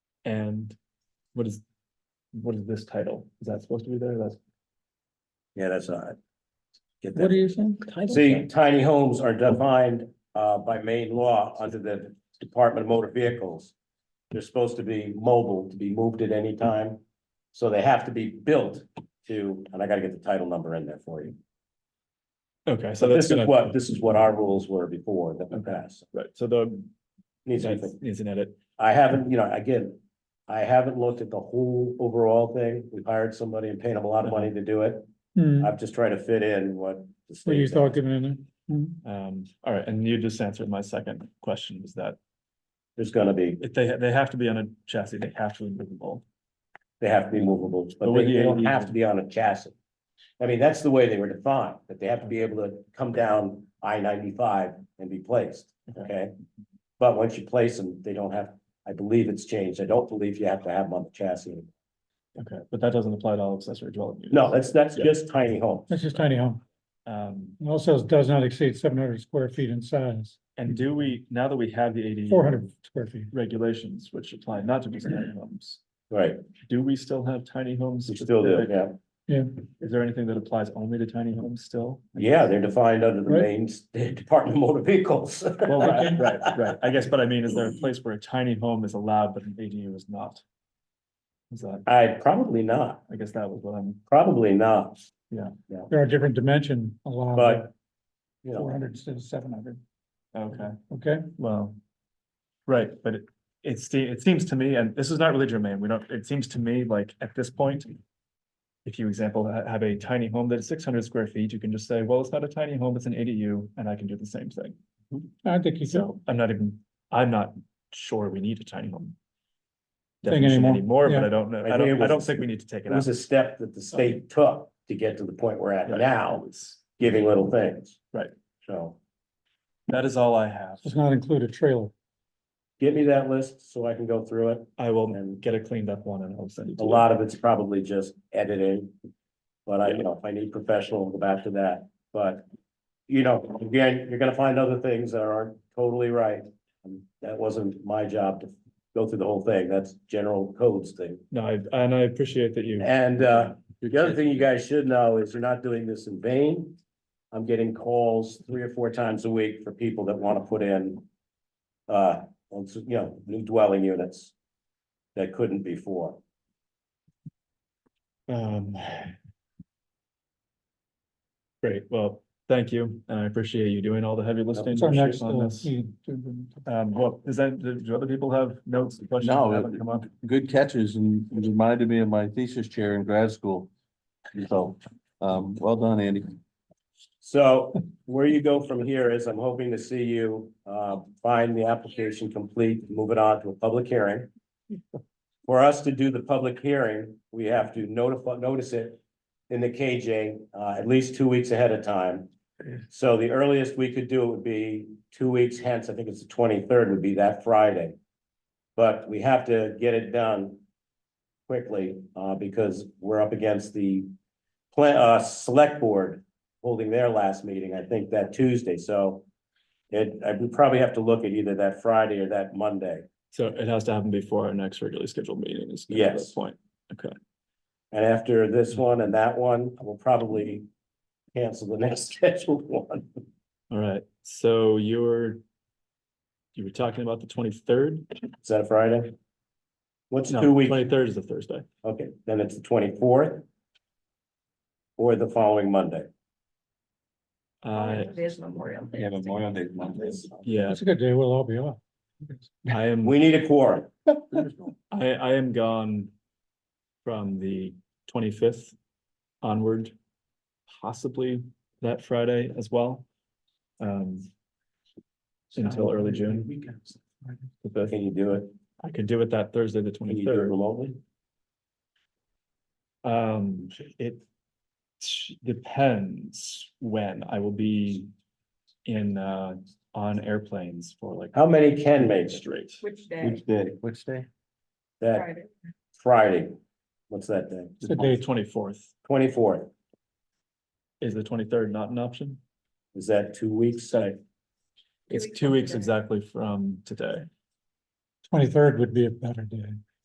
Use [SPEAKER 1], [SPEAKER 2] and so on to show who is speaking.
[SPEAKER 1] And what is, what is this title? Is that supposed to be there? That's.
[SPEAKER 2] Yeah, that's not. Get
[SPEAKER 3] What are
[SPEAKER 2] that.
[SPEAKER 3] you saying? Title
[SPEAKER 2] See,
[SPEAKER 3] change.
[SPEAKER 2] tiny homes are defined uh by main law under the Department of Motor Vehicles. They're supposed to be mobile, to be moved at any time. So they have to be built to, and I gotta get the title number in there for you.
[SPEAKER 1] Okay, so
[SPEAKER 2] So
[SPEAKER 1] that's
[SPEAKER 2] this is
[SPEAKER 1] gonna.
[SPEAKER 2] what, this is what our rules were before that we passed.
[SPEAKER 1] Right, so the,
[SPEAKER 2] Needs to be
[SPEAKER 1] that needs an edit.
[SPEAKER 2] I haven't, you know, again, I haven't looked at the whole overall thing. We hired somebody and paid them a lot of money to do it.
[SPEAKER 3] Hmm,
[SPEAKER 2] I've just tried to fit in what. the
[SPEAKER 3] What you
[SPEAKER 2] state-
[SPEAKER 3] thought given in there? Hmm.
[SPEAKER 1] Um, all right, and you just answered my second question is that
[SPEAKER 2] There's gonna be,
[SPEAKER 1] if they, they have to be on a chassis, they have to be movable.
[SPEAKER 2] they have to be movable, but
[SPEAKER 1] But with
[SPEAKER 2] they they
[SPEAKER 1] the
[SPEAKER 2] don't
[SPEAKER 1] AV
[SPEAKER 2] have to be on a chassis. I mean, that's the way they were defined, that they have to be able to come down I ninety-five and be placed, okay? But once you place them, they don't have, I believe it's changed. I don't believe you have to have them on the chassis.
[SPEAKER 1] Okay, but that doesn't apply to all accessory dwelling units.
[SPEAKER 2] No, that's, that's
[SPEAKER 1] Yeah.
[SPEAKER 2] just tiny homes.
[SPEAKER 3] That's just tiny home.
[SPEAKER 1] Um,
[SPEAKER 3] It also says does not exceed seven hundred square feet in size,
[SPEAKER 1] and do we, now that we have the AD.
[SPEAKER 3] four hundred square feet.
[SPEAKER 1] Regulations which apply not to just tiny homes,
[SPEAKER 2] Right,
[SPEAKER 1] do we still have tiny homes?
[SPEAKER 2] you still do,
[SPEAKER 1] specific?
[SPEAKER 2] yeah.
[SPEAKER 3] Yeah,
[SPEAKER 1] Is there anything that applies only to tiny homes still?
[SPEAKER 2] Yeah, they're defined under the
[SPEAKER 3] Right.
[SPEAKER 2] main s- Department of Motor Vehicles.
[SPEAKER 1] Well, right, right, right. I guess, but I mean, is there a place where a tiny home is allowed, but an ADU is not? Is that,
[SPEAKER 2] I, probably not,
[SPEAKER 1] I guess that was what I'm,
[SPEAKER 2] probably not,
[SPEAKER 3] there are different dimension allowed.
[SPEAKER 2] but. You
[SPEAKER 3] Four
[SPEAKER 2] know,
[SPEAKER 3] hundred instead of seven hundred,
[SPEAKER 1] okay,
[SPEAKER 3] okay?
[SPEAKER 1] well. Right, but it, it se- it seems to me, and this is not really germane, we don't, it seems to me like at this point. If you example, ha- have a tiny home that is six hundred square feet, you can just say, well, it's not a tiny home, it's an ADU, and I can do the same thing.
[SPEAKER 3] I think you could.
[SPEAKER 1] So I'm not even, I'm not sure we need a tiny home.
[SPEAKER 3] Thing
[SPEAKER 1] Definition
[SPEAKER 3] anymore,
[SPEAKER 1] anymore, but
[SPEAKER 3] yeah.
[SPEAKER 1] I don't know,
[SPEAKER 2] I
[SPEAKER 1] I
[SPEAKER 2] think it
[SPEAKER 1] don't, I
[SPEAKER 2] was-
[SPEAKER 1] don't think we need to take
[SPEAKER 2] it
[SPEAKER 1] it out.
[SPEAKER 2] was a step that the state took to get to the point we're at
[SPEAKER 1] Right.
[SPEAKER 2] now,
[SPEAKER 1] It's-
[SPEAKER 2] giving little things.
[SPEAKER 1] Right.
[SPEAKER 2] So
[SPEAKER 1] That is all I have.
[SPEAKER 3] Does not include a trailer.
[SPEAKER 2] get me that list so I can go through it,
[SPEAKER 1] I will
[SPEAKER 2] and
[SPEAKER 1] get a cleaned up one and I'll send it to
[SPEAKER 2] a
[SPEAKER 1] you.
[SPEAKER 2] lot of it's probably just editing. But I, you
[SPEAKER 1] Yeah.
[SPEAKER 2] know, if I need professional, I'll go back to that, but. You know, again, you're gonna find other things that aren't totally right. And That wasn't my job to go through the whole thing, that's general codes thing.
[SPEAKER 1] No, I- and I appreciate that you.
[SPEAKER 2] And uh, the other thing you guys should know is you're not doing this in vain. I'm getting calls three or four times a week for people that want to put in. Uh, you know, new dwelling units. That couldn't before.
[SPEAKER 1] Um. Great, well, thank you, and I appreciate you doing all the heavy lifting
[SPEAKER 3] It's our next,
[SPEAKER 1] on
[SPEAKER 3] uh,
[SPEAKER 1] this.
[SPEAKER 3] meeting. All
[SPEAKER 1] Um, well, is that, do do other people have notes, questions? that
[SPEAKER 4] No,
[SPEAKER 1] haven't come up?
[SPEAKER 4] good catches and it reminded me of my thesis chair in grad school. So, um, well done, Andy.
[SPEAKER 2] So where you go from here is I'm hoping to see you uh, find the application complete, move it on to a public hearing. For us to do the public hearing, we have to notify, notice it in the KJ uh, at least two weeks ahead of time. So the earliest we could do it would be two weeks hence, I think it's the twenty-third would be that Friday. But we have to get it done quickly uh, because we're up against the plan, uh, select board holding their last meeting, I think that Tuesday, so. It, I would probably have to look at either that Friday or that Monday,
[SPEAKER 1] So it has to happen before our next regularly scheduled meeting is. kind of the
[SPEAKER 2] Yes.
[SPEAKER 1] Point, okay,
[SPEAKER 2] and after this one and that one, I will probably. Cancel the next scheduled one,
[SPEAKER 1] all right, so you're. You were talking about the twenty-third?
[SPEAKER 2] is that a Friday? What's two
[SPEAKER 1] No,
[SPEAKER 2] weeks,
[SPEAKER 1] twenty-third is a Thursday.
[SPEAKER 2] okay, then it's the twenty-fourth. Or the following Monday,
[SPEAKER 1] Uh,
[SPEAKER 5] There's Memorial Day.
[SPEAKER 4] Day
[SPEAKER 1] yeah,
[SPEAKER 3] It's a good day, we'll all be off.
[SPEAKER 1] I am.
[SPEAKER 2] we need a quorum,
[SPEAKER 1] I, I am gone from the twenty-fifth onward, possibly that Friday as well. Um, until early June. the fifth.
[SPEAKER 2] can you do it,
[SPEAKER 1] I could do it that Thursday, the
[SPEAKER 2] can you do it
[SPEAKER 1] twenty-third.
[SPEAKER 2] remotely?
[SPEAKER 1] Um, it depends when I will be in, uh, on airplanes for like
[SPEAKER 2] How many can make it?
[SPEAKER 1] straight.
[SPEAKER 5] Which day?
[SPEAKER 4] Which day? Which day?
[SPEAKER 2] that
[SPEAKER 5] Friday.
[SPEAKER 2] Friday, what's that day,
[SPEAKER 3] It's
[SPEAKER 1] The
[SPEAKER 3] a day,
[SPEAKER 1] twenty-fourth,
[SPEAKER 2] twenty-fourth,
[SPEAKER 1] is the twenty-third not an option?
[SPEAKER 2] is that two weeks, I-
[SPEAKER 1] It's
[SPEAKER 5] weeks
[SPEAKER 1] two
[SPEAKER 5] from
[SPEAKER 1] weeks
[SPEAKER 5] today.
[SPEAKER 1] exactly from today.
[SPEAKER 3] twenty-third would be a better day.